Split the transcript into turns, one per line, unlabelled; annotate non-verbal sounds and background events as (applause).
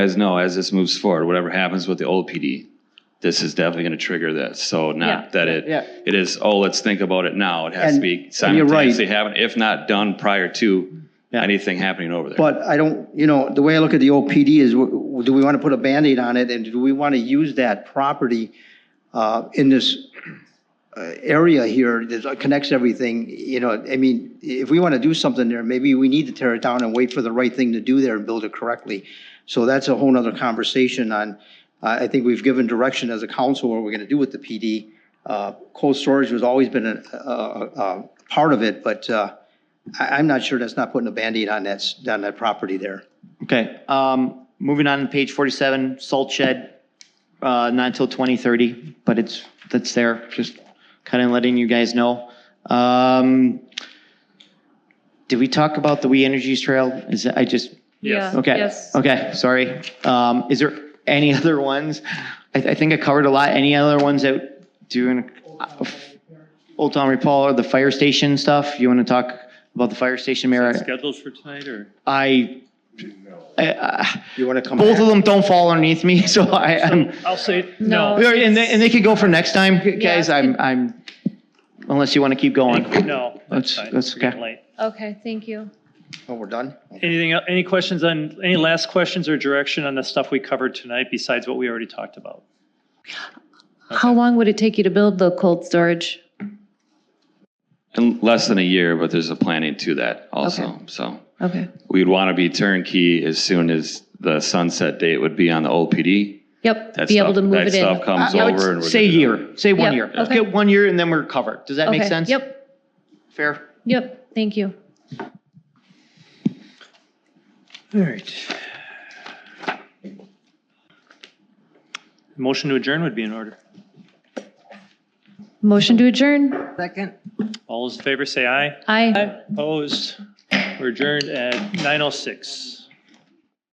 guys know, as this moves forward, whatever happens with the old PD, this is definitely gonna trigger this, so
Yeah.
not that it,
Yeah.
it is, oh, let's think about it now, it has to
And-
be
and you're right.
simultaneously happening, if not done prior to
Yeah.
anything happening over there.
But I don't, you know, the way I look at the OPD is, w- w- do we want to put a Band-Aid on it, and do we want to use that property uh, in this uh, area here that connects everything, you know, I mean, if we want to do something there, maybe we need to tear it down and wait for the right thing to do there and build it correctly. So that's a whole nother conversation on, uh, I I think we've given direction as a council what we're going to do with the PD. Uh, Cold storage has always been a, a, a- a part of it, but uh, I, I'm not sure that's not putting a Band-Aid on that, s- on that property there.
Okay, um, moving on to page forty-seven, salt shed, uh, not until twenty thirty, but it's, that's there, just kind of letting you guys know. Um, did we talk about the We Energies Trail? Is, that- I just,
Yes.
Yeah,
okay,
Yes.
okay, sorry. Um, is there any (laughs) other ones? I, I think I covered a lot. Any other ones that doing? uh, Old Town Repall or the fire station stuff? You want to talk about the fire station, Mayor?
Schedules for tonight or?
I, I, I-
You want to come
both of
back?
them don't fall underneath me, (laughs) so I, I'm,
I'll say,
No.
no,
All right, and they, and they could go for next time, guys,
Yeah.
I'm, I'm, unless you want to keep going.
no.
That's-
fine.
that's
We're getting
okay.
late.
Okay, thank you.
Oh, we're done?
Anything, el- any questions on, any last questions or direction on the stuff we covered tonight besides what we already talked about?
How long would it take you to build the cold storage?
In less than a year, but there's a planning to that
Okay.
also, so.
Okay.
We'd want to be turnkey as soon as the sunset date would be on the old PD.
Yep,
That
be able
stuff-
to move
that
it in.
stuff comes
I would
over and we're
Uh, Say
good to go.
year, say one
Yeah,
year,
okay.
get one year and then we're covered, does that make
Okay,
sense?
Yep,
Fair?
yep, thank you.
All right. Motion to adjourn would be in order.
Motion to adjourn.
Second.
All those in favor say aye.
Aye.
oh Opposed? We're adjourned at 9:06.